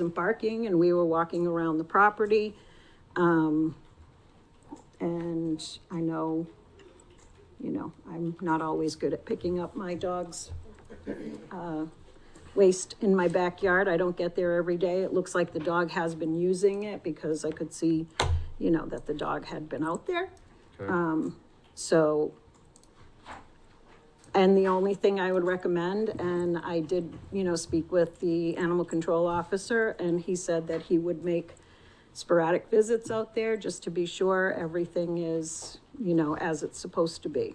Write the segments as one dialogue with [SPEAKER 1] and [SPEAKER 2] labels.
[SPEAKER 1] some parking and we were walking around the property. Um, and I know, you know, I'm not always good at picking up my dog's, uh, waste in my backyard. I don't get there every day. It looks like the dog has been using it because I could see, you know, that the dog had been out there.
[SPEAKER 2] Um.
[SPEAKER 1] So, and the only thing I would recommend, and I did, you know, speak with the animal control officer, and he said that he would make sporadic visits out there just to be sure everything is, you know, as it's supposed to be.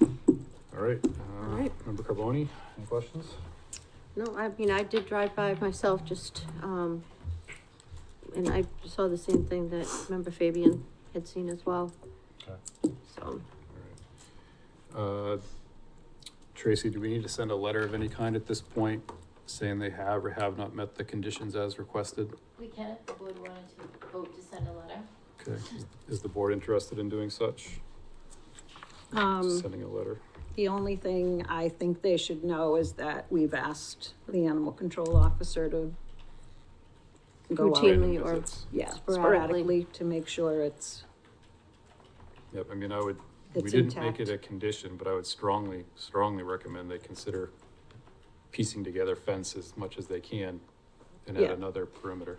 [SPEAKER 2] All right,
[SPEAKER 3] All
[SPEAKER 2] uh,
[SPEAKER 3] right.
[SPEAKER 2] member Carboni, any questions?
[SPEAKER 3] No, I mean, I did drive by myself just, um, and I saw the same thing that member Fabian had seen as well. So,
[SPEAKER 2] All right. Uh, Tracy, do we need to send a letter of any kind at this point saying they have or have not met the conditions as requested?
[SPEAKER 4] We can if the board wanted to vote to send a letter.
[SPEAKER 2] Okay, is- is the board interested in doing such,
[SPEAKER 1] Um,
[SPEAKER 2] sending a letter?
[SPEAKER 1] the only thing I think they should know is that we've asked the animal control officer to go out,
[SPEAKER 3] Routine.
[SPEAKER 2] Random
[SPEAKER 3] Routinely or-
[SPEAKER 2] visits.
[SPEAKER 1] yeah,
[SPEAKER 3] Sporadically.
[SPEAKER 1] sporadically to make sure it's,
[SPEAKER 2] Yep, I mean, I would, we
[SPEAKER 1] it's
[SPEAKER 2] didn't make
[SPEAKER 1] intact.
[SPEAKER 2] it a condition, but I would strongly, strongly recommend they consider piecing together fence as much as they can and add
[SPEAKER 1] Yeah.
[SPEAKER 2] another perimeter.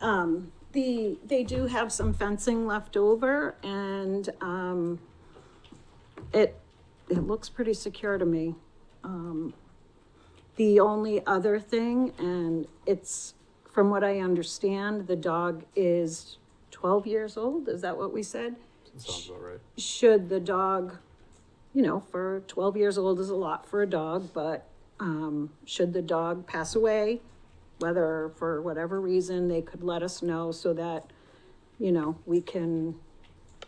[SPEAKER 1] Um, the, they do have some fencing left over and, um, it, it looks pretty secure to me. Um, the only other thing, and it's, from what I understand, the dog is twelve years old, is that what we said?
[SPEAKER 2] Sounds about right.
[SPEAKER 1] should the dog, you know, for twelve years old is a lot for a dog, but um, should the dog pass away, whether for whatever reason, they could let us know so that, you know, we can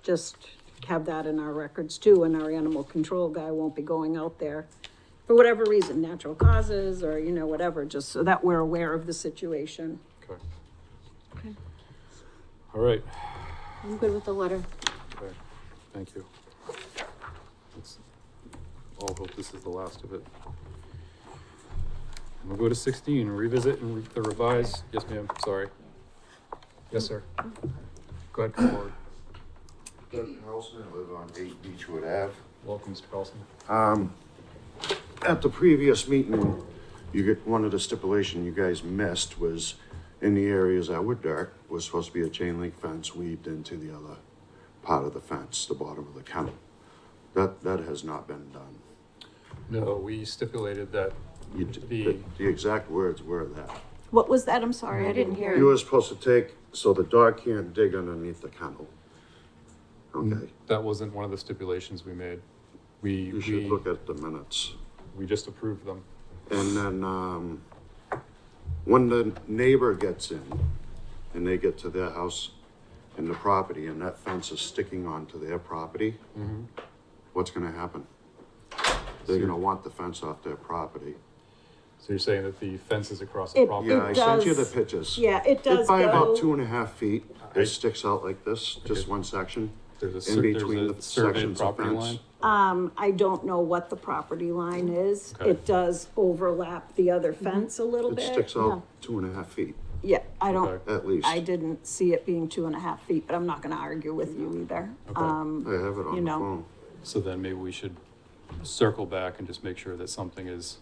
[SPEAKER 1] just have that in our records too, and our animal control guy won't be going out there for whatever reason, natural causes or, you know, whatever, just so that we're aware of the situation.
[SPEAKER 2] Okay.
[SPEAKER 3] Okay.
[SPEAKER 2] All right,
[SPEAKER 3] I'm good with the letter.
[SPEAKER 2] okay, thank you. Let's all hope this is the last of it. And we'll go to sixteen, revisit and re- the revise, yes ma'am, sorry. Yes, sir. Go ahead, come forward.
[SPEAKER 5] Doug Carlson, I live on eight Beechwood Ave.
[SPEAKER 2] Welcome, Mr. Carlson.
[SPEAKER 5] At the previous meeting, you get, one of the stipulation you guys missed was in the areas that were dark, was supposed to be a chain link fence weaved into the other part of the fence, the bottom of the kennel. That, that has not been done.
[SPEAKER 2] No, we stipulated that
[SPEAKER 5] You, d- the,
[SPEAKER 2] The-
[SPEAKER 5] the exact words were that.
[SPEAKER 1] What was that? I'm sorry, I didn't hear.
[SPEAKER 5] You were supposed to take, so the dog can't dig underneath the kennel. Okay,
[SPEAKER 2] that wasn't one of the stipulations we made. We,
[SPEAKER 5] you should
[SPEAKER 2] we,
[SPEAKER 5] look at the minutes.
[SPEAKER 2] we just approved them.
[SPEAKER 5] And then, um, when the neighbor gets in and they get to their house and the property and that fence is sticking onto their property,
[SPEAKER 1] Mm-hmm.
[SPEAKER 5] what's gonna happen? They're gonna want the fence off their property.
[SPEAKER 2] So you're saying that the fence is across
[SPEAKER 1] It-
[SPEAKER 2] the
[SPEAKER 1] it
[SPEAKER 2] property?
[SPEAKER 5] Yeah, I sent you the
[SPEAKER 1] does-
[SPEAKER 5] pictures.
[SPEAKER 1] Yeah, it does
[SPEAKER 5] It's by
[SPEAKER 1] go-
[SPEAKER 5] about two and a half feet.
[SPEAKER 2] I-
[SPEAKER 5] It sticks out like this, just one section.
[SPEAKER 2] There's a,
[SPEAKER 5] in
[SPEAKER 2] cer- there's
[SPEAKER 5] between
[SPEAKER 2] a
[SPEAKER 5] the
[SPEAKER 2] surveyed
[SPEAKER 5] sections of
[SPEAKER 2] property
[SPEAKER 5] fence.
[SPEAKER 2] line?
[SPEAKER 1] Um, I don't know what the property line is.
[SPEAKER 2] Mm. Okay.
[SPEAKER 1] It does overlap the other fence a little
[SPEAKER 5] It
[SPEAKER 1] bit.
[SPEAKER 5] sticks out two and a half feet
[SPEAKER 1] Yeah, I don't,
[SPEAKER 2] Okay.
[SPEAKER 5] at least.
[SPEAKER 1] I
[SPEAKER 5] I
[SPEAKER 1] didn't see it being two and a half feet, but I'm not gonna argue with you either.
[SPEAKER 2] Okay.
[SPEAKER 1] Um,
[SPEAKER 5] have it
[SPEAKER 1] you
[SPEAKER 5] on the
[SPEAKER 1] know.
[SPEAKER 5] phone.
[SPEAKER 2] So then maybe we should circle back and just make sure that something is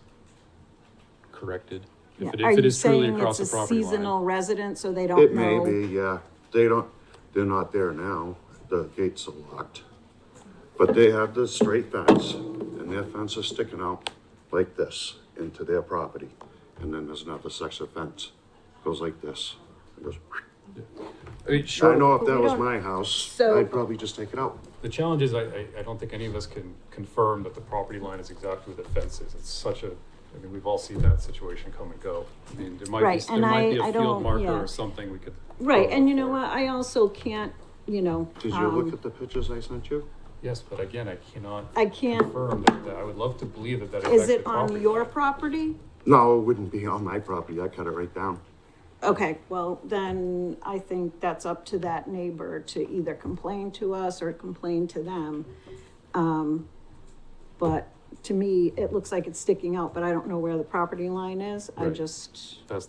[SPEAKER 2] corrected.
[SPEAKER 1] yeah.
[SPEAKER 2] If it,
[SPEAKER 1] Are
[SPEAKER 2] if it
[SPEAKER 1] you
[SPEAKER 2] is truly
[SPEAKER 1] saying
[SPEAKER 2] across
[SPEAKER 1] it's
[SPEAKER 2] the
[SPEAKER 1] a
[SPEAKER 2] property line.
[SPEAKER 1] seasonal resident, so they
[SPEAKER 5] It
[SPEAKER 1] don't
[SPEAKER 5] may
[SPEAKER 1] know?
[SPEAKER 5] be, yeah. They don't, they're not there now. The gates are locked. But they have the straight fence and their fence is sticking out like this into their property. And then there's another section of fence, goes like this. It goes,
[SPEAKER 2] I mean,
[SPEAKER 5] I
[SPEAKER 2] sure,
[SPEAKER 5] know if that was
[SPEAKER 1] don't-
[SPEAKER 5] my house,
[SPEAKER 1] So-
[SPEAKER 5] I'd probably just take it out.
[SPEAKER 2] the challenge is I, I, I don't think any of us can confirm that the property line is exactly where the fence is. It's such a, I mean, we've all seen that situation come and go. I mean, there might be,
[SPEAKER 1] Right,
[SPEAKER 2] there
[SPEAKER 1] and
[SPEAKER 2] might
[SPEAKER 1] I-
[SPEAKER 2] be
[SPEAKER 1] I
[SPEAKER 2] a
[SPEAKER 1] don't-
[SPEAKER 2] field marker
[SPEAKER 1] yeah.
[SPEAKER 2] or something we could.
[SPEAKER 1] Right,
[SPEAKER 2] follow
[SPEAKER 1] and you
[SPEAKER 2] up
[SPEAKER 1] know
[SPEAKER 2] for.
[SPEAKER 1] what, I also can't, you know,
[SPEAKER 5] Did you look
[SPEAKER 1] um,
[SPEAKER 5] at the pictures I sent you?
[SPEAKER 2] Yes, but again, I cannot
[SPEAKER 1] I can't,
[SPEAKER 2] confirm that, that- I would love to believe that that
[SPEAKER 1] is
[SPEAKER 2] is actually
[SPEAKER 1] it on
[SPEAKER 2] property
[SPEAKER 1] your
[SPEAKER 2] line.
[SPEAKER 1] property?
[SPEAKER 5] No, it wouldn't be on my property. I cut it right down.
[SPEAKER 1] Okay, well, then I think that's up to that neighbor to either complain to us or complain to them. Um, but to me, it looks like it's sticking out, but I don't know where the property line is. I
[SPEAKER 2] Right.
[SPEAKER 1] just.
[SPEAKER 2] That's